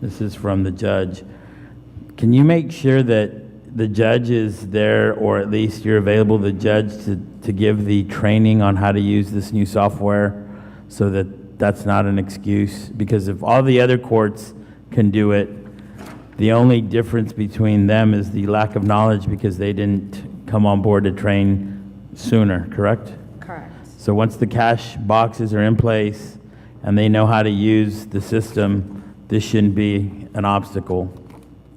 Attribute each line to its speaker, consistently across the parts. Speaker 1: This is from the judge. Can you make sure that the judge is there, or at least you're available, to the judge, to, to give the training on how to use this new software so that that's not an excuse? Because if all the other courts can do it, the only difference between them is the lack of knowledge because they didn't come on board to train sooner, correct?
Speaker 2: Correct.
Speaker 1: So once the cash boxes are in place and they know how to use the system, this shouldn't be an obstacle,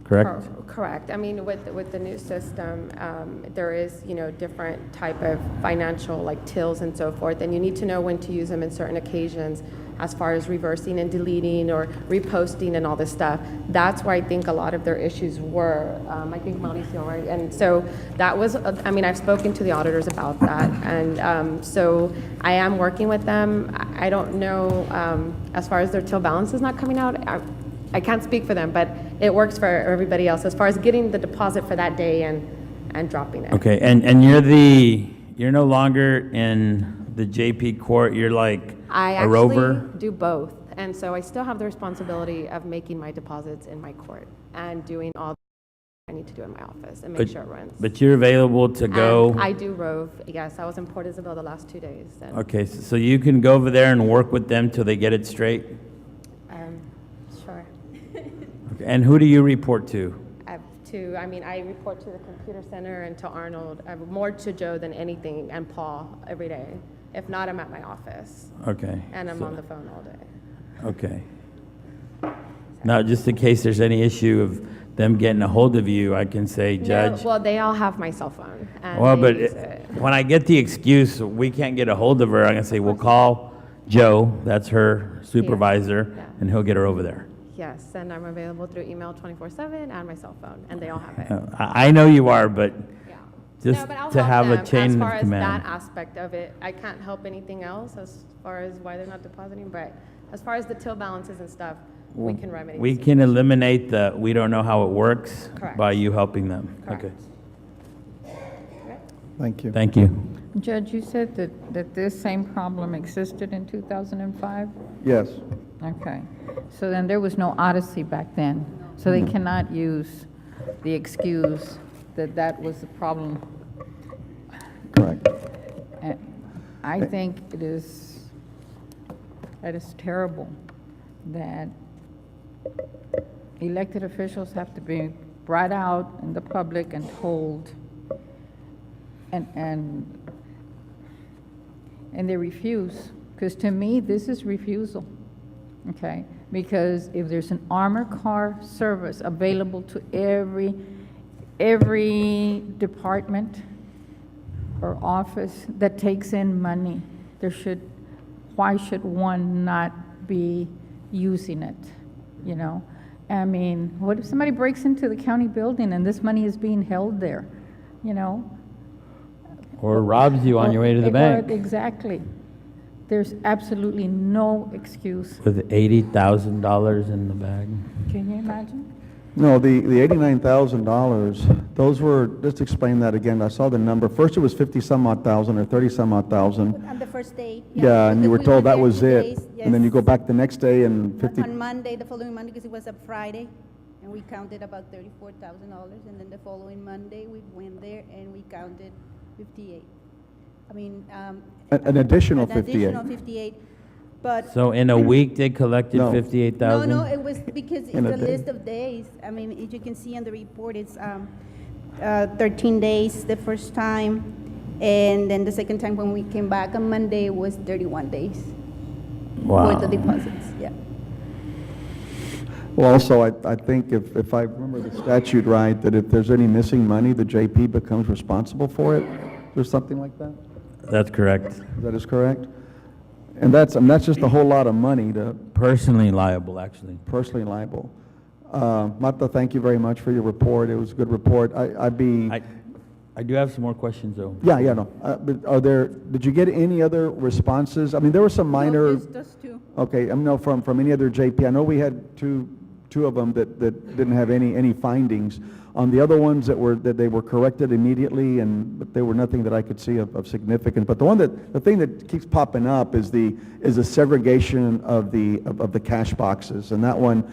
Speaker 1: correct?
Speaker 2: Cor- Correct. I mean, with, with the new system, um, there is, you know, different type of financial, like tills and so forth, and you need to know when to use them in certain occasions as far as reversing and deleting or reposting and all this stuff. That's where I think a lot of their issues were, um, I think Mauricio, right? And so that was, I mean, I've spoken to the auditors about that, and um, so I am working with them. I I don't know, um, as far as their till balance is not coming out, I- I can't speak for them, but it works for everybody else as far as getting the deposit for that day and, and dropping it.
Speaker 1: Okay, and, and you're the, you're no longer in the JP court, you're like
Speaker 2: I
Speaker 1: a rover?
Speaker 2: actually do both, and so I still have the responsibility of making my deposits in my court and doing all I need to do in my office and make
Speaker 1: But-
Speaker 2: sure it runs.
Speaker 1: But you're available to
Speaker 2: And
Speaker 1: go?
Speaker 2: Um, I do rove, yes, I was in Port Isabel the last two days, and,
Speaker 1: Okay, s- so you can go over there and work with them till they get it straight?
Speaker 2: um, sure.
Speaker 1: Okay, And who do you report to?
Speaker 2: I have to, I mean, I report to the computer center and to Arnold, uh, more to Joe than anything, and Paul every day. If not, I'm at my office.
Speaker 1: Okay.
Speaker 2: And I'm
Speaker 1: so-
Speaker 2: on the phone all day.
Speaker 1: Okay. Now, just in case there's any issue of them getting a hold of you, I can say, Judge,
Speaker 2: No, well, they all have my cell phone. and
Speaker 1: well,
Speaker 2: they
Speaker 1: but
Speaker 2: use
Speaker 1: it-
Speaker 2: it.
Speaker 1: when I get the excuse, we can't get a hold of her, I'm gonna say, well, call Joe, that's her
Speaker 2: yeah.
Speaker 1: supervisor, and he'll get her over there.
Speaker 2: Yes, and I'm available through email 24/7 and my cell phone, and they all have
Speaker 1: Uh,
Speaker 2: it.
Speaker 1: I, I know you are, but
Speaker 2: Yeah.
Speaker 1: Just
Speaker 2: No, but I'll
Speaker 1: to have
Speaker 2: help
Speaker 1: a
Speaker 2: them
Speaker 1: chain of
Speaker 2: As far as
Speaker 1: command.
Speaker 2: that aspect of it, I can't help anything else as far as why they're not depositing, but as far as the till balances and stuff, we can remedy.
Speaker 1: we
Speaker 2: this.
Speaker 1: can eliminate the, we don't know how it works
Speaker 2: Correct.
Speaker 1: by you helping them.
Speaker 2: Correct.
Speaker 1: Okay.
Speaker 3: Thank you.
Speaker 1: Thank you.
Speaker 4: Judge, you said that, that this same problem existed in 2005?
Speaker 3: Yes,
Speaker 4: Okay. So then there was no Odyssey back then. So they cannot use the excuse that that was the problem.
Speaker 3: correct.
Speaker 4: Uh, I think it is, that is terrible that elected officials have to be brought out in the public and told, and, and, and they refuse. Because to me, this is refusal, okay? Because if there's an armor car service available to every, every department, or office that takes in money, there should, why should one not be using it, you know? I mean, what if somebody breaks into the county building and this money is being held there, you know?
Speaker 1: Or robs you on your way to the
Speaker 4: Or-
Speaker 1: bank
Speaker 4: Exactly. There's absolutely no excuse.
Speaker 1: with $80,000 in the bag.
Speaker 4: Can you imagine?
Speaker 3: No, the, the eighty-nine thousand dollars, those were, just explain that again, I saw the number, first it was fifty-some odd thousand or thirty-some odd thousand.
Speaker 5: On the first day.
Speaker 3: Yeah, and you were
Speaker 5: because we
Speaker 3: told that
Speaker 5: there
Speaker 3: was
Speaker 5: two
Speaker 3: it,
Speaker 5: days,
Speaker 3: and then you
Speaker 5: yes.
Speaker 3: go back the next day and
Speaker 5: On-
Speaker 3: fifty,
Speaker 5: On Monday, the following Monday, because it was a Friday, and we counted about thirty-four thousand dollars, and then the following Monday, we went there and we counted fifty-eight. I mean, um.
Speaker 3: An- an additional
Speaker 5: an additional
Speaker 3: 58.
Speaker 5: fifty-eight, but.
Speaker 1: So in a week, they collected
Speaker 3: No.
Speaker 1: $58,000?
Speaker 5: No, no, it was because it's
Speaker 3: In a
Speaker 5: a
Speaker 3: day.
Speaker 5: list of days. I mean, as you can see on the report, it's um, uh, 13 days the first time, and then the second time when we came back on Monday was 31 days for
Speaker 1: Wow.
Speaker 5: the deposits, yeah.
Speaker 3: well, also, I, I think if, if I remember the statute right, that if there's any missing money, the JP becomes responsible for it, or something like that?
Speaker 1: That's correct.
Speaker 3: That is correct? And that's, and that's just a whole lot of money to,
Speaker 1: Personally liable, actually.
Speaker 3: personally liable. Uh, Martha, thank you very much for your report. It was a good report. I, I'd be,
Speaker 1: I, I do have some more questions, though.
Speaker 3: yeah, yeah, no. Uh, but are there, did you get any other responses? I mean, there were some minor, okay, I mean, no, from, from any other JP. I know we had two, two of them that, that didn't have any, any findings. On the other ones that were, that they were corrected immediately and, but there were nothing that I could see of, of significance. But the one that, the thing that keeps popping up is the, is the segregation of the, of, of the cash boxes. And that one,